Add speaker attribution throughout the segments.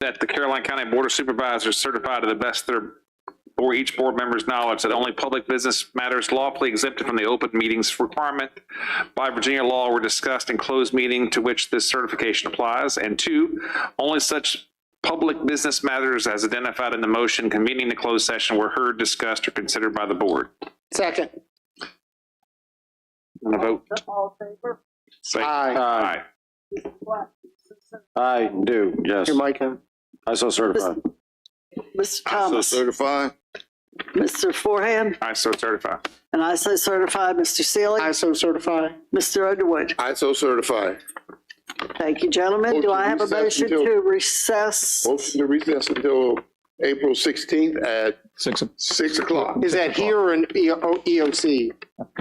Speaker 1: that the Caroline County Board of Supervisors certify to the best of their, or each board member's knowledge that only public business matters lawfully exempted from the open meetings requirement by Virginia law were discussed in closed meeting to which this certification applies. And two, only such public business matters as identified in the motion convening the closed session were heard, discussed, or considered by the board.
Speaker 2: Second.
Speaker 1: And a vote.
Speaker 3: All in favor?
Speaker 1: Say
Speaker 2: Aye.
Speaker 1: aye.
Speaker 3: What?
Speaker 4: I do, yes.
Speaker 2: Your mic on.
Speaker 4: I so certify.
Speaker 3: Mr.
Speaker 5: So
Speaker 3: Thomas,
Speaker 5: certify.
Speaker 3: Mr. Forehand,
Speaker 1: I so certify.
Speaker 3: and I so certify, Mr. Sealy,
Speaker 2: I so certify.
Speaker 3: Mr. Underwood.
Speaker 5: I so certify.
Speaker 3: Thank you, gentlemen. Do I have a motion
Speaker 5: Motion to recess
Speaker 3: to recess?
Speaker 5: Motion to recess until April sixteenth at
Speaker 6: Six, I
Speaker 5: six o'clock
Speaker 2: Is that here or in E- O- EOC?
Speaker 6: think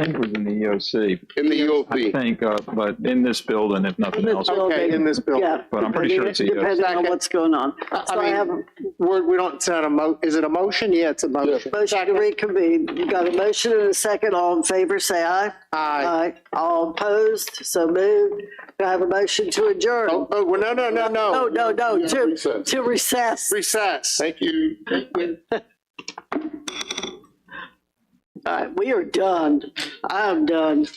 Speaker 6: it was in the EOC,
Speaker 5: in the
Speaker 6: I
Speaker 5: EOP.
Speaker 6: think, uh, but in this building, if nothing else.
Speaker 2: Okay, in this bill.
Speaker 3: Yeah.
Speaker 6: But I'm pretty sure it's a yes.
Speaker 3: Depending on
Speaker 2: Second.
Speaker 3: what's going on.
Speaker 2: I-
Speaker 3: So
Speaker 2: I
Speaker 3: I
Speaker 2: mean-
Speaker 3: have a
Speaker 2: We're, we don't, it's not a mo, is it a motion? Yeah, it's a motion.
Speaker 3: motion to reconvene. You got a motion and a second. All in favor, say aye.
Speaker 2: Aye.
Speaker 3: Uh, All opposed, so moved. Do I have a motion to adjourn?
Speaker 2: Oh, oh, well, no, no, no, no.
Speaker 3: No, no, no, to,
Speaker 5: Recess.
Speaker 3: to recess.
Speaker 2: Recess.
Speaker 5: Thank you.
Speaker 3: All right, we are done. I am done.